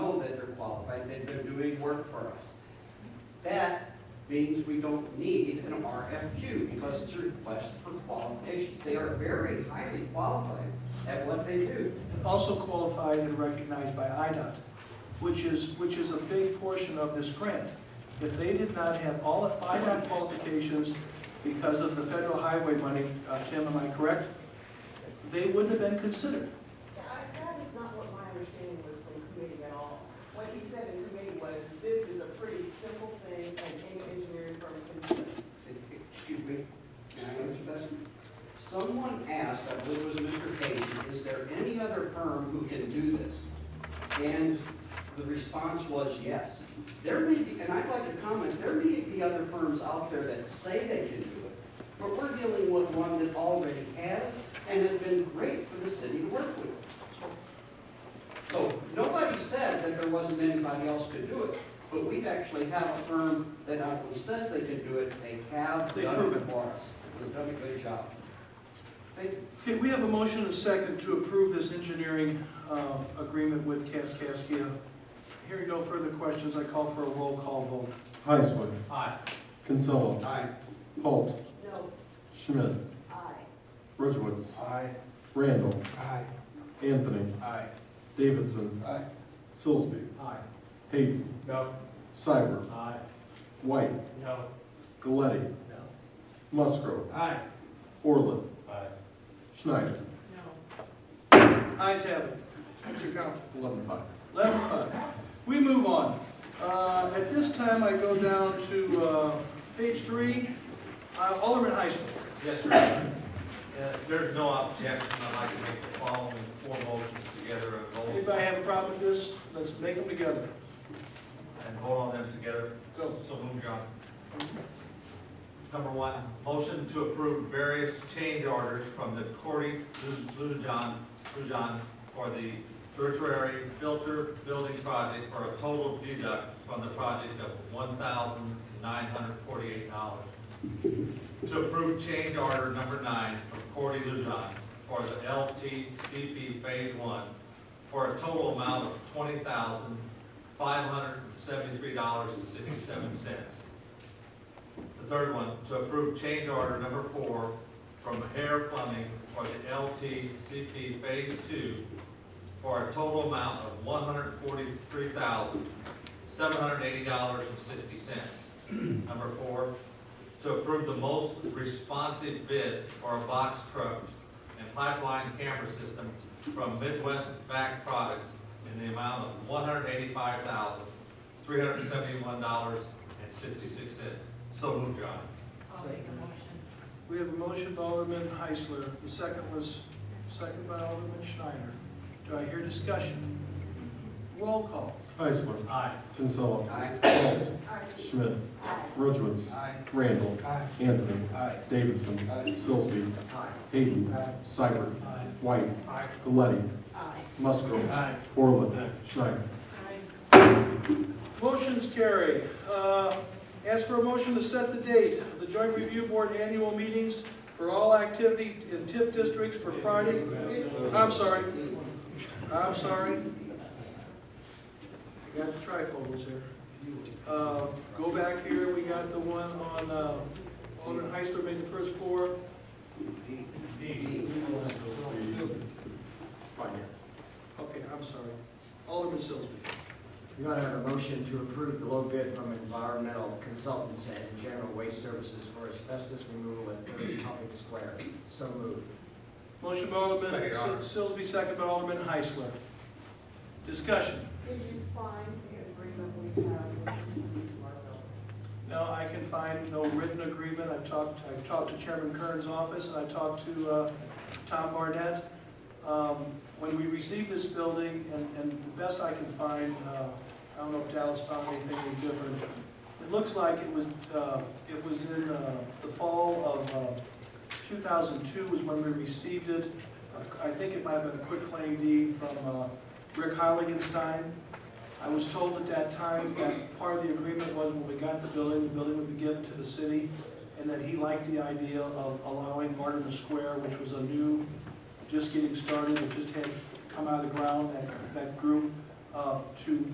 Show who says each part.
Speaker 1: that they're doing work for us. That means we don't need an RFQ because it's a request for qualifications. They are very highly qualified at what they do.
Speaker 2: also qualified and recognized by IDOT, which is, which is a big portion of this grant. If they did not have all of IDOT qualifications because of the federal highway money, uh, Tim, am I correct? They wouldn't have been considered.
Speaker 3: I- That is not what my understanding was from committee at all. What he said in committee was, this is a pretty simple thing and any engineering firm can do it.
Speaker 1: Excuse me, can I answer this? Someone asked, I believe it was Mr. Payton, is there any other firm who can do this? And the response was yes. There may be, and I'd like to comment, there may be other firms out there that say they can do it, but we're dealing with one that already has and has been great for the city to work with. So nobody said that there wasn't anybody else could do it, but we actually have a firm that not only says they can do it, they have
Speaker 2: They
Speaker 1: done
Speaker 2: prove
Speaker 1: it
Speaker 2: it.
Speaker 1: for us. They've done a good job. Thank you.
Speaker 2: Okay, we have a motion and a second to approve this engineering um, agreement with Kaskaskia. Hearing no further questions, I call for a roll call vote.
Speaker 4: Heisler.
Speaker 1: Aye.
Speaker 4: Kinsella.
Speaker 1: Aye.
Speaker 4: Holt.
Speaker 3: No,
Speaker 4: Schmidt.
Speaker 3: I.
Speaker 4: Ridgewood.
Speaker 2: Aye.
Speaker 4: Randall.
Speaker 2: Aye.
Speaker 4: Anthony.
Speaker 2: Aye.
Speaker 4: Davidson.
Speaker 1: Aye.
Speaker 4: Sillsby.
Speaker 2: Aye.
Speaker 4: Hayden.
Speaker 2: No.
Speaker 4: Cybert.
Speaker 2: Aye.
Speaker 4: White.
Speaker 2: No.
Speaker 4: Galetti.
Speaker 2: No.
Speaker 4: Musgrove.
Speaker 2: Aye.
Speaker 4: Orland.
Speaker 2: Aye.
Speaker 4: Schneider.
Speaker 3: No.
Speaker 2: Ayes have it. That's your count.
Speaker 4: Eleven five.
Speaker 2: Eleven five. uh, We move on. Uh, At this time, I go down to uh, page three, Uh, Alderman Heisler.
Speaker 5: Yes, sir. Uh, if There's no objection. I'd like to make the following four motions together and vote,
Speaker 2: Anybody have a problem with this? Let's make them together.
Speaker 5: and vote on them together.
Speaker 2: Go.
Speaker 5: So move, John. Number one, motion to approve various change orders from the Cordy Lujan, Lujan for the tertiary filter building project for a total deduct from the project of one thousand nine hundred forty-eight dollars. To approve change order number nine from Cordy Lujan for the LTCP Phase One for a total amount of twenty thousand five hundred seventy-three dollars and sixty-seven cents. The third one, to approve change order number four from Hair Plumbing for the LTCP Phase Two for a total amount of one hundred forty-three thousand, seven hundred eighty dollars and sixty cents. Number four, to approve the most responsive bid for a box truck and pipeline camera system from Midwest Vac Products in the amount of one hundred eighty-five thousand, three hundred seventy-one dollars and sixty-six cents. So moved, John.
Speaker 3: I'll make a motion.
Speaker 2: We have a motion by Alderman Heisler. The second was, second by Alderman Schneider. Do I hear discussion? Roll call.
Speaker 4: Heisler.
Speaker 5: Aye.
Speaker 4: Kinsella.
Speaker 1: Aye.
Speaker 4: Holt.
Speaker 3: I.
Speaker 4: Schmidt.
Speaker 3: I.
Speaker 4: Ridgewood.
Speaker 1: Aye.
Speaker 4: Randall.
Speaker 1: Aye.
Speaker 4: Anthony.
Speaker 2: Aye.
Speaker 4: Davidson.
Speaker 1: Aye.
Speaker 4: Sillsby.
Speaker 1: Aye.
Speaker 4: Hayden. Cybert.
Speaker 2: Aye.
Speaker 4: White.
Speaker 5: Aye.
Speaker 4: Galetti.
Speaker 3: I.
Speaker 4: Musgrove.
Speaker 5: Aye.
Speaker 4: Orland.
Speaker 5: Aye.
Speaker 4: Schneider.
Speaker 3: I.
Speaker 2: Motion's carried. Uh, Ask for a motion to set the date of the Joint Review Board annual meetings for all activity in TIF districts for Friday. I'm sorry. I'm sorry. We Got the trifles here. Uh, Go back here, we got the one on, uh, Alderman Heisler made the first floor.
Speaker 6: Finance.
Speaker 2: Okay, I'm sorry. Alderman Sillsby.
Speaker 6: You're going to have a motion to approve the low bid from environmental consultants and general waste services for asbestos removal at 30 Public Square. So moved.
Speaker 2: Motion by Alderman
Speaker 5: Second, Your Honor.
Speaker 2: Sil- Sillsby, second by Alderman Heisler. Discussion.
Speaker 3: Did you find the agreement we have with Marvell?
Speaker 2: No, I can find no written agreement. I've talked, I've talked to Chairman Kern's office, and I talked to uh, Tom Barnett. Um, When we received this building, and, and the best I can find, uh, I don't know if Dallas found anything any different. It looks like it was, uh, it was in uh, the fall of uh, 2002 was when we received it. I think it might have been a quick claim deed from uh, Rick Heiligenstein. I was told at that time that part of the agreement was when we got the building, the building would be given to the city, and that he liked the idea of allowing Martin Square, which was a new, just getting started, it just had come out of the ground, that, that group, uh, to